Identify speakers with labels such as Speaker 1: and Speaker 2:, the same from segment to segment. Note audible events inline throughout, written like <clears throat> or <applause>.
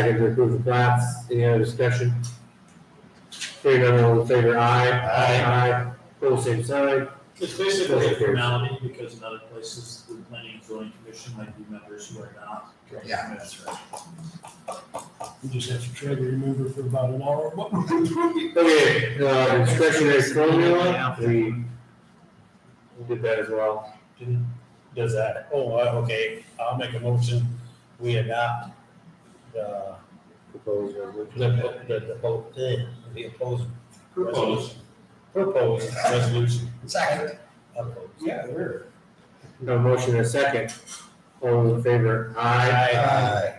Speaker 1: Second to approve the plats. Any other discussion? Hearing none, all in favor, aye. Aye. Aye. Pull same sign.
Speaker 2: It's basically
Speaker 1: Still
Speaker 2: a
Speaker 1: appears.
Speaker 2: formality because in other places, the planning and zoning commission might be members who are not.
Speaker 3: Yeah, that's right.
Speaker 4: We just have to try to remember for about an hour. <laughs> What we
Speaker 1: Okay, uh, discretionary formula, we we did that as well.
Speaker 4: didn't, does that, oh, uh, okay, I'll make a motion, we adopt the,
Speaker 1: Proposed resolution.
Speaker 4: the, the, the, vote, eh, the opposed.
Speaker 2: Proposed.
Speaker 4: Proposed resolution.
Speaker 3: Second.
Speaker 4: Opposed.
Speaker 3: Yeah, we're.
Speaker 1: No motion and a second. All in favor, aye.
Speaker 3: Aye.
Speaker 4: Uh,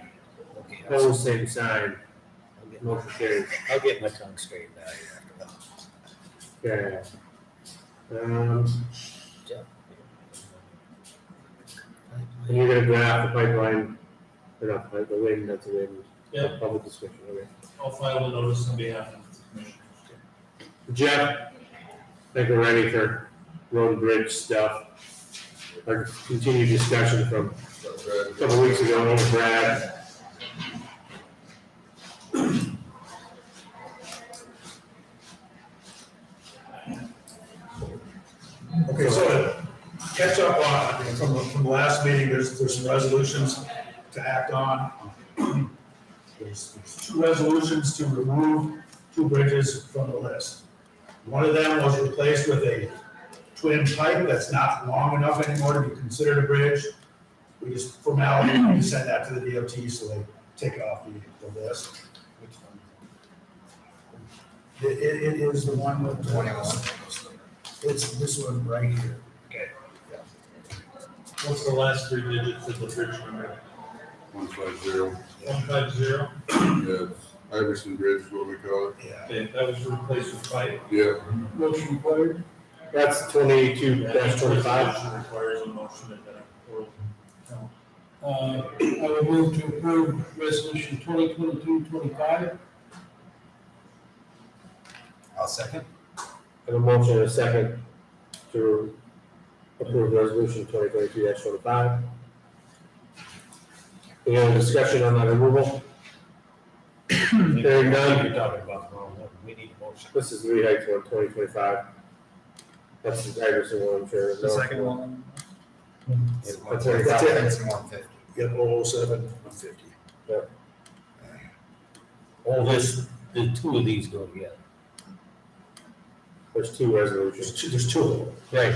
Speaker 4: Okay, I'll-
Speaker 1: Pull same sign.
Speaker 4: I'll get-
Speaker 1: Motion carried.
Speaker 4: I'll get my tongue straightened out here after
Speaker 1: Okay.
Speaker 4: that.
Speaker 1: Um, and you're gonna draft the pipeline, or not, pipe- the wind, that's the wind.
Speaker 2: Yeah.
Speaker 1: Public discussion, okay.
Speaker 2: I'll file a notice on behalf of the commission.
Speaker 1: Jeff, I think we're ready for road and bridge stuff. Our continued discussion from a couple weeks ago with Brad.
Speaker 5: Okay, so to catch up on, from, from the last meeting, there's, there's some resolutions to act on. There's there's two resolutions to remove two bridges from the list. One of them was replaced with a twin pipe that's not long enough anymore to be considered a bridge. We just formality, we send that to the DOT, so they take it off the, the list. It, it, it is the one with the it's this one right here. Okay.
Speaker 2: What's the last three digits of the bridge number?
Speaker 6: One five zero, <clears throat>
Speaker 2: One five zero?
Speaker 6: yeah, Iverson Bridge, is what we call it,
Speaker 5: Yeah.
Speaker 2: Okay, that was replaced with five.
Speaker 6: yeah.
Speaker 5: Motion required?
Speaker 1: That's twenty-two
Speaker 2: That
Speaker 1: dash twenty-five.
Speaker 2: Requires a motion at that point.
Speaker 7: Uh, I will move to approve resolution 2022-25.
Speaker 3: I'll second.
Speaker 1: Have a motion and a second to approve resolution twenty twenty-two dash twenty-five. Any other discussion on that removal? Hearing none.
Speaker 4: You're talking about the wrong one. We need a motion.
Speaker 1: This is Lee Heights one, twenty twenty-five. That's the Iverson one, I'm sure. no?
Speaker 3: one. It's one
Speaker 1: That's it.
Speaker 3: fifty. It's one fifty.
Speaker 5: Yep, oh, seven, one fifty.
Speaker 4: All this, the two of these go together.
Speaker 1: There's two resolutions.
Speaker 5: There's two, there's two of them.
Speaker 1: Right.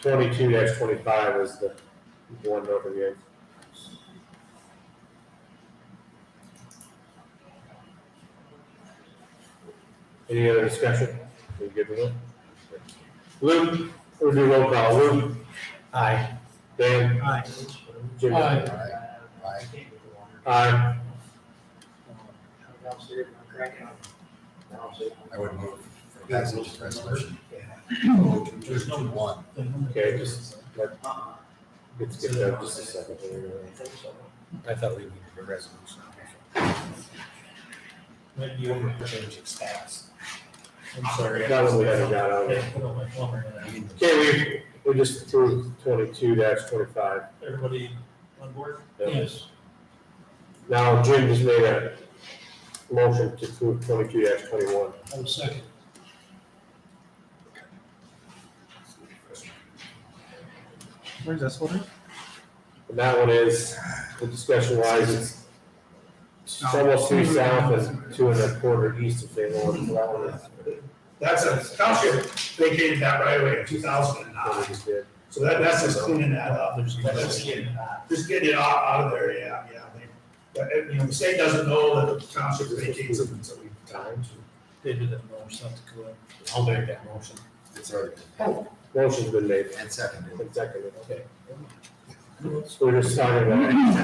Speaker 1: Twenty-two dash twenty-five is the one over here. Any other discussion? We good with it? Luke, we'll do roll call. Luke? Aye. Dan?
Speaker 4: Aye.
Speaker 1: Jimmy?
Speaker 7: Aye.
Speaker 3: Aye.
Speaker 1: Aye.
Speaker 3: I would move for passage of resolution. There's no one.
Speaker 1: Okay, just let, let's get that just a second. here.
Speaker 4: I thought we needed a resolution.
Speaker 2: Might be over.
Speaker 4: Change its status.
Speaker 2: I'm sorry.
Speaker 1: That was what I got out of
Speaker 2: Okay,
Speaker 1: it.
Speaker 2: put on my plumber hat.
Speaker 1: Okay, we, we just approved twenty-two dash twenty-five.
Speaker 2: Everybody on board?
Speaker 7: Yes.
Speaker 1: Now Jim just made a motion to approve twenty-two dash twenty-one.
Speaker 7: I will second.
Speaker 3: Where's this one?
Speaker 1: And that one is, the discussion wise, it's it's almost three south and two and a quarter east of St. Lawrence. So that one is
Speaker 5: That's a township vacated that right away in two thousand and
Speaker 1: what we
Speaker 5: nine,
Speaker 1: just did.
Speaker 5: so that, that's just cleaning that up,
Speaker 2: There's.
Speaker 5: That's it. just getting it out, out of there, yeah, yeah. they- But, uh, you know, the state doesn't know that the township vacates it until we time to.
Speaker 2: They did that in North South Dakota.
Speaker 4: I'll make that motion.
Speaker 3: It's already.
Speaker 1: Motion's been made
Speaker 3: And seconded.
Speaker 1: and seconded, okay. So we're just starting that.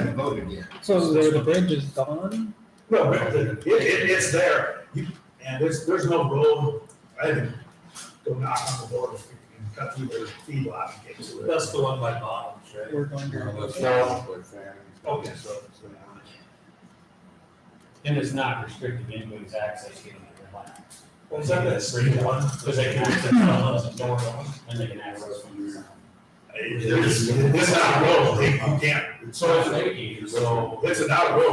Speaker 3: And voted yet.
Speaker 7: So the bridge is gone?
Speaker 5: No, but the- it, it, it's there, you, and there's, there's no road, I didn't go knock on the door and cut through their feedlot and get to it.
Speaker 2: That's the one by Bob's, right?
Speaker 7: We're going
Speaker 6: Here,
Speaker 7: to.
Speaker 6: let's-
Speaker 1: No.
Speaker 6: like Fanning.
Speaker 5: Okay.
Speaker 8: And it's not restricting anybody's access to their land,
Speaker 2: Was that that spring one? Was that access on the north one?
Speaker 8: and they can access from your.
Speaker 5: It's, it's not a road, they, you can't,
Speaker 8: So it's
Speaker 5: so,
Speaker 8: mitigated, so.
Speaker 5: it's not a road,